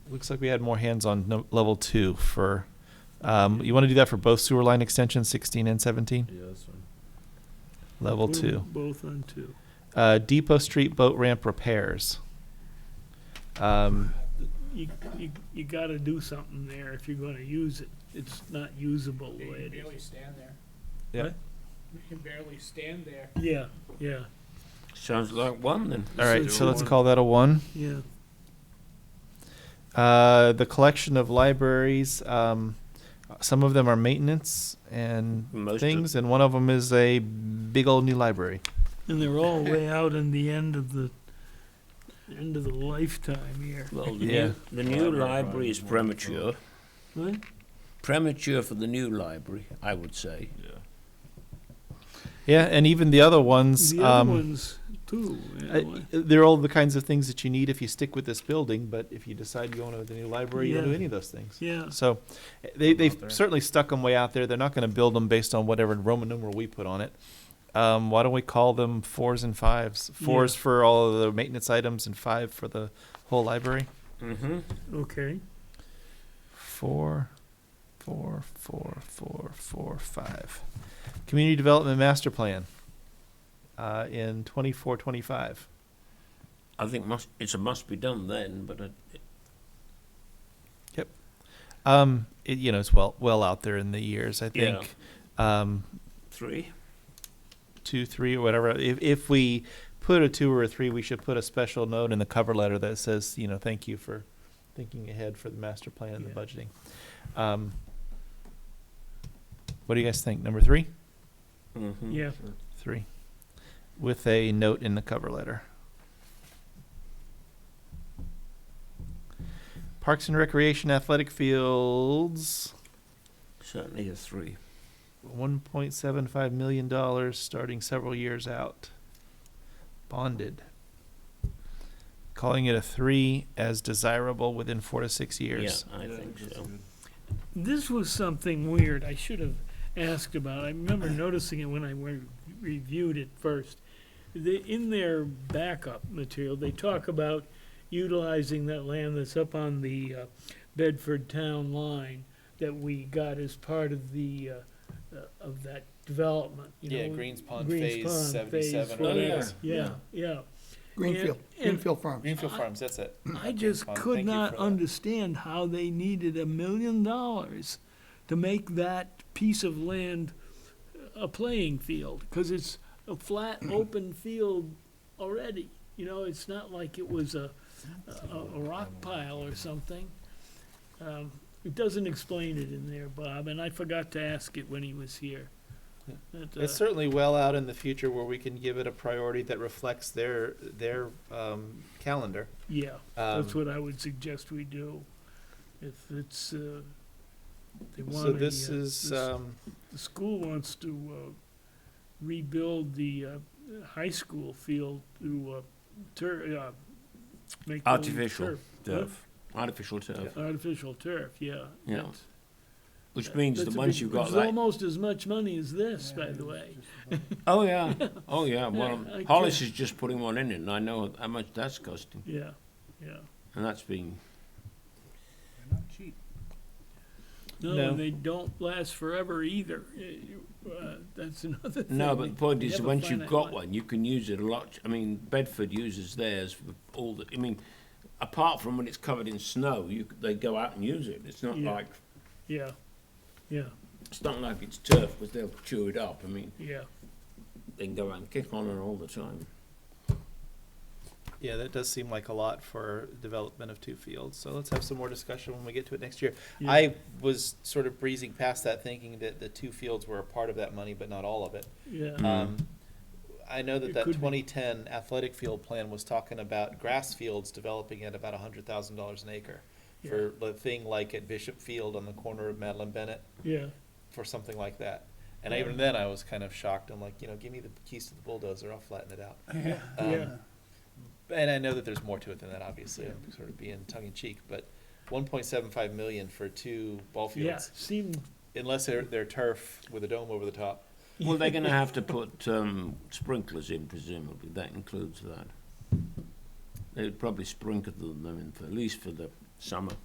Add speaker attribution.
Speaker 1: looks like we had more hands on no, level two for, um, you want to do that for both sewer line extensions, sixteen and seventeen?
Speaker 2: Yeah, that's fine.
Speaker 1: Level
Speaker 3: Put 'em
Speaker 1: two.
Speaker 3: Both on two.
Speaker 1: Uh, Depot Street boat ramp repairs. Um,
Speaker 3: You, you, you gotta do something there if you're gonna use it. It's not usable the
Speaker 4: Yeah,
Speaker 3: way
Speaker 4: you
Speaker 3: it
Speaker 4: can
Speaker 3: is.
Speaker 4: barely stand there.
Speaker 1: Yeah.
Speaker 3: What?
Speaker 4: You can barely stand there.
Speaker 3: Yeah, yeah,
Speaker 2: Sounds like one then.
Speaker 1: all right, so let's
Speaker 3: one.
Speaker 1: call that a one.
Speaker 3: yeah.
Speaker 1: Uh, the collection of libraries, um, some of them are maintenance and
Speaker 2: Most of-
Speaker 1: things, and one of them is a big old new library.
Speaker 3: And they're all way out in the end of the, end of the lifetime here.
Speaker 2: Well, the
Speaker 1: Yeah.
Speaker 2: new, the new
Speaker 5: Library
Speaker 2: library is
Speaker 5: probably more
Speaker 2: premature.
Speaker 3: What?
Speaker 2: Premature for the new library, I would say.
Speaker 5: Yeah.
Speaker 1: Yeah, and even the other ones,
Speaker 3: The
Speaker 1: um,
Speaker 3: other ones too. you
Speaker 1: Uh,
Speaker 3: know.
Speaker 1: They're all the kinds of things that you need if you stick with this building, but if you decide you want to have the new library, you don't do
Speaker 3: Yeah.
Speaker 1: any of those things.
Speaker 3: Yeah,
Speaker 1: So they,
Speaker 5: Put 'em
Speaker 1: they've
Speaker 5: out there.
Speaker 1: certainly stuck them way out there. They're not going to build them based on whatever Roman numeral we put on it. Um, why don't we call them fours and fives? Fours for all of the maintenance items and five for the whole library.
Speaker 2: Mm-hmm.
Speaker 3: okay.
Speaker 1: Four, four, four, four, four, five. Community Development Master Plan uh, in 24 25.
Speaker 2: I think must, it's a must be done then, but it,
Speaker 1: Um, it, you know, it's well well out there in the years. I
Speaker 2: Yeah.
Speaker 1: think um,
Speaker 2: three.
Speaker 1: two, three, or whatever. If if we put a two or a three, we should put a special note in the cover letter that says, you know, thank you for thinking ahead for the master plan and the
Speaker 3: Yeah.
Speaker 1: budgeting. Um, what do you guys think? Number three,
Speaker 2: Mm-hmm.
Speaker 3: Yeah.
Speaker 1: three, with a note in the cover letter. Parks and Recreation athletic fields.
Speaker 2: Certainly a three.
Speaker 1: one point seven five million dollars starting several years out. Bonded. Calling it a three as desirable within four to six years.
Speaker 2: Yeah, I think so.
Speaker 3: This was something weird I should have asked about. I remember noticing it when I re- reviewed it first. They, in their backup material, they talk about utilizing that land that's up on the uh, Bedford Town line that we got as part of the, uh, uh, of that development, you know. Greens Pond Phase, whatever.
Speaker 5: whatever.
Speaker 3: Oh, Yeah, yeah.
Speaker 6: Greenfield,
Speaker 3: And- and-
Speaker 6: Greenfield Farms.
Speaker 1: Greenfield Farms, that's it.
Speaker 3: I just
Speaker 1: Tom.
Speaker 3: could
Speaker 1: Thank you
Speaker 3: not
Speaker 1: for that.
Speaker 3: understand how they needed a million dollars to make that piece of land a playing field, because it's a flat, open field already. You know, it's not like it was a, a, a rock pile or something. Um, It doesn't explain it in there, Bob, and I forgot to ask it when he was here. That, uh,
Speaker 1: It's certainly well out in the future where we can give it a priority that reflects their, their, um, calendar.
Speaker 3: Yeah.
Speaker 1: Um,
Speaker 3: That's what I would suggest we do. If it's, uh, they want
Speaker 1: so
Speaker 3: a,
Speaker 1: this
Speaker 3: uh,
Speaker 1: is,
Speaker 3: this-
Speaker 1: um,
Speaker 3: The school wants to, uh, rebuild the, uh, high school field to, uh, tur- uh, make. the
Speaker 2: Artificial.
Speaker 3: turf.
Speaker 2: Turf. Artificial turf.
Speaker 3: Artificial turf, yeah.
Speaker 2: Yeah.
Speaker 3: That's-
Speaker 2: Which means
Speaker 3: that's
Speaker 2: that
Speaker 3: a
Speaker 2: once
Speaker 3: big-
Speaker 2: you've got
Speaker 3: It's
Speaker 2: that.
Speaker 3: almost as much money as this, by the way.
Speaker 2: Oh, yeah. Oh, yeah. Well,
Speaker 3: Yeah, I
Speaker 2: Hollis
Speaker 3: guess.
Speaker 2: is just putting one in, and I know how much that's costing.
Speaker 3: Yeah, yeah.
Speaker 2: And that's been.
Speaker 4: They're not cheap.
Speaker 3: No,
Speaker 1: No.
Speaker 3: and they don't last forever either. Uh, you- uh, That's another thing.
Speaker 2: No, but the point
Speaker 3: They
Speaker 2: is,
Speaker 3: have a
Speaker 2: once you've
Speaker 3: finite
Speaker 2: got
Speaker 3: life.
Speaker 2: one, you can use it a lot. I mean, Bedford uses theirs for all the. I mean, apart from when it's covered in snow, you c- they go out and use it. It's not
Speaker 3: Yeah.
Speaker 2: like
Speaker 3: Yeah, yeah,
Speaker 2: it's not like it's turf, because they'll chew it up. I mean,
Speaker 3: yeah.
Speaker 2: they can go out and kick on it all the time.
Speaker 1: yeah, that does seem like a lot for development of two fields. So let's have some more discussion when we get to it next year.
Speaker 3: yeah.
Speaker 1: I was sort of breezing past that, thinking that the two fields were a part of that money, but not all of it.
Speaker 3: Yeah,
Speaker 2: Mm.
Speaker 1: Um, I know that
Speaker 3: Mm-hmm. It
Speaker 1: that
Speaker 3: could be.
Speaker 1: 2010 athletic field plan was talking about grass fields developing at about $100,000 an acre
Speaker 3: yeah,
Speaker 1: for the thing like at Bishop Field on the corner of Madeline Bennett
Speaker 3: yeah,
Speaker 1: for something like that. And even then, I was kind of shocked. I'm like, you know, give me the keys to the bulldozer, I'll flatten it out. Um,
Speaker 3: yeah.
Speaker 1: And I know that there's more to it than that, obviously. I'm sort of being tongue in cheek, but 1.75 million for two ball
Speaker 3: Yeah,
Speaker 1: fields
Speaker 3: seemed,
Speaker 1: unless they're, they're turf with a dome over the top.
Speaker 2: Well, they're going to have to put um, sprinklers in, presumably. That includes that. They would probably sprinkle them in for, at least for the summer.